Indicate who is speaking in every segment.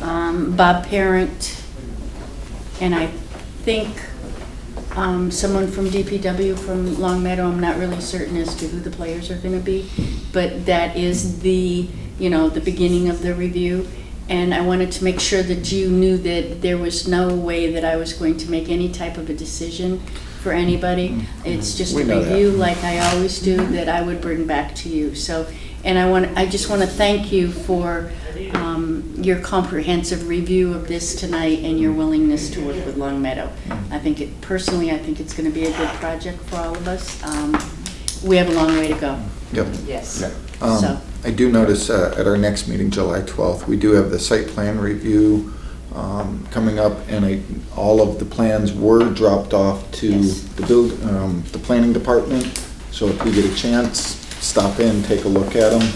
Speaker 1: um, Bob Parent, and I think um, someone from DPW from Long Meadow, I'm not really certain as to who the players are going to be, but that is the, you know, the beginning of the review. And I wanted to make sure that you knew that there was no way that I was going to make any type of a decision for anybody. It's just a
Speaker 2: We know that.
Speaker 1: review like I always do that I would bring back to you. So, and I want, I just want to thank you for um, your comprehensive review of this tonight and your willingness to work with Long Meadow. I think it, personally, I think it's going to be a good project for all of us. Um, We have a long way to go.
Speaker 2: Yep.
Speaker 3: Yes.
Speaker 2: Yeah.
Speaker 1: So-
Speaker 2: Um, I do notice uh, at our next meeting, July 12th, we do have the site plan review um, coming up, and I- all of the plans were dropped off to
Speaker 1: Yes.
Speaker 2: the build, um, the planning department, so if we get a chance, stop in, take a look at them.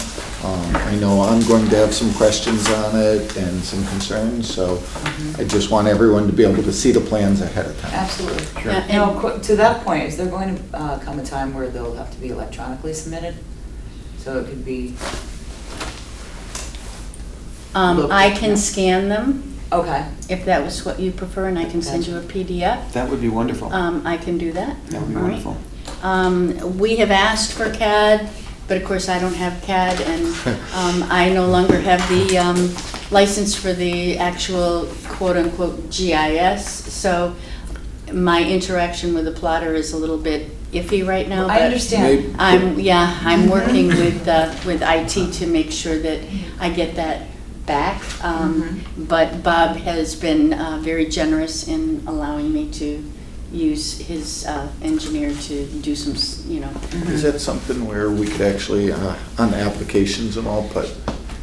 Speaker 2: I know I'm going to have some questions on it and some concerns, so
Speaker 1: Mm-hmm.
Speaker 2: I just want everyone to be able to see the plans ahead of time.
Speaker 3: Absolutely.
Speaker 2: Sure.
Speaker 1: Yeah,
Speaker 3: Now,
Speaker 1: and-
Speaker 3: qu- to that point, is there going to uh, come a time where they'll have to be electronically submitted? So it could be,
Speaker 1: Um, I can scan them,
Speaker 3: okay,
Speaker 1: if that was what you prefer, and I can send you a PDF.
Speaker 4: That would be wonderful.
Speaker 1: Um, I can do that.
Speaker 4: That would be
Speaker 1: All right.
Speaker 4: wonderful.
Speaker 1: Um, we have asked for CAD, but of course I don't have CAD and, um, I no longer have the, um, license for the actual quote-unquote GIS. So my interaction with the plotter is a little bit iffy right now,
Speaker 3: I
Speaker 1: but-
Speaker 3: understand. Mm-hmm.
Speaker 1: I'm, yeah, I'm working with, uh, with IT to make sure that I get that back.
Speaker 3: Mm-hmm.
Speaker 1: Um, But Bob has been uh, very generous in allowing me to use his uh, engineer to do some, s- you know.
Speaker 2: Is that something where we could actually, uh, on applications and all, put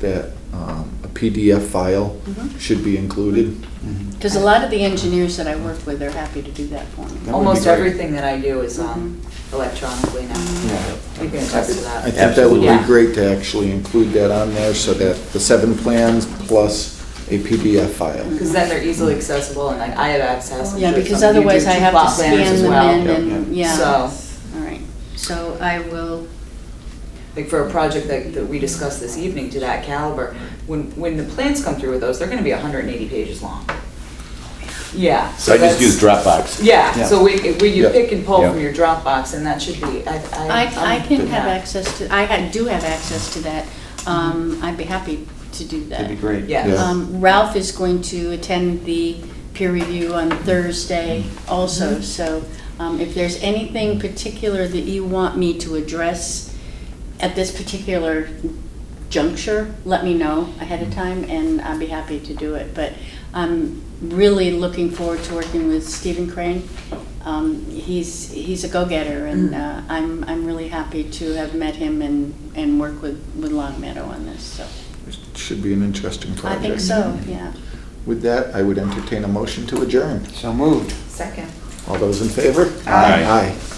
Speaker 2: that um, a PDF file
Speaker 1: Mhm.
Speaker 2: should be included?
Speaker 4: Mhm.
Speaker 1: Because a lot of the engineers that I work with are happy to do that for me.
Speaker 4: be
Speaker 3: almost
Speaker 4: great.
Speaker 3: everything that I do is um,
Speaker 1: Mm-hmm.
Speaker 3: electronically now.
Speaker 4: Yeah.
Speaker 3: We can attest to
Speaker 2: I
Speaker 3: that.
Speaker 2: think that would
Speaker 3: Absolutely.
Speaker 2: be great to actually include that on there so that the seven plans plus a PDF file.
Speaker 3: Because then they're easily accessible and like I have access. I'm
Speaker 1: Yeah,
Speaker 3: sure
Speaker 1: because
Speaker 3: some of you
Speaker 1: otherwise
Speaker 3: do,
Speaker 1: I
Speaker 3: to
Speaker 1: have to
Speaker 3: plot planners
Speaker 1: scan
Speaker 3: as
Speaker 1: them
Speaker 3: well.
Speaker 1: in
Speaker 4: Yeah,
Speaker 1: and, yeah.
Speaker 3: So,
Speaker 1: All right, so I will,
Speaker 3: like for a project that, that we discussed this evening to that caliber, when, when the plans come through with those, they're gonna be hundred and eighty pages long. Yeah.
Speaker 5: So I just
Speaker 3: that's-
Speaker 5: use Dropbox.
Speaker 3: Yeah,
Speaker 4: Yeah.
Speaker 3: so we, we, you
Speaker 2: Yeah.
Speaker 3: pick and pull
Speaker 5: Yeah.
Speaker 3: from your Dropbox, and that should be, I, I.
Speaker 1: I, I
Speaker 3: I'm
Speaker 1: can
Speaker 3: good
Speaker 1: have
Speaker 3: with
Speaker 1: access to, I ha- do have access to that.
Speaker 3: Mm-hmm.
Speaker 1: Um, I'd be happy to do that.
Speaker 4: That'd be great.
Speaker 3: that. Yes,
Speaker 2: Yeah.
Speaker 1: Um, Ralph is going to attend the peer review on Thursday also, so um, if there's anything particular that you want me to address at this particular juncture, let me know ahead of time, and I'd be happy to do it. But I'm really looking forward to working with Stephen Crane. Um, He's, he's a go-getter, and uh, I'm, I'm really happy to have met him and, and work with, with Long Meadow on this, so.
Speaker 2: It Should be an interesting
Speaker 1: I
Speaker 2: project.
Speaker 1: think so, yeah.
Speaker 2: With that, I would entertain a motion to adjourn.
Speaker 4: So moved.
Speaker 3: second.
Speaker 2: All those in favor?
Speaker 5: Aye.
Speaker 2: Aye.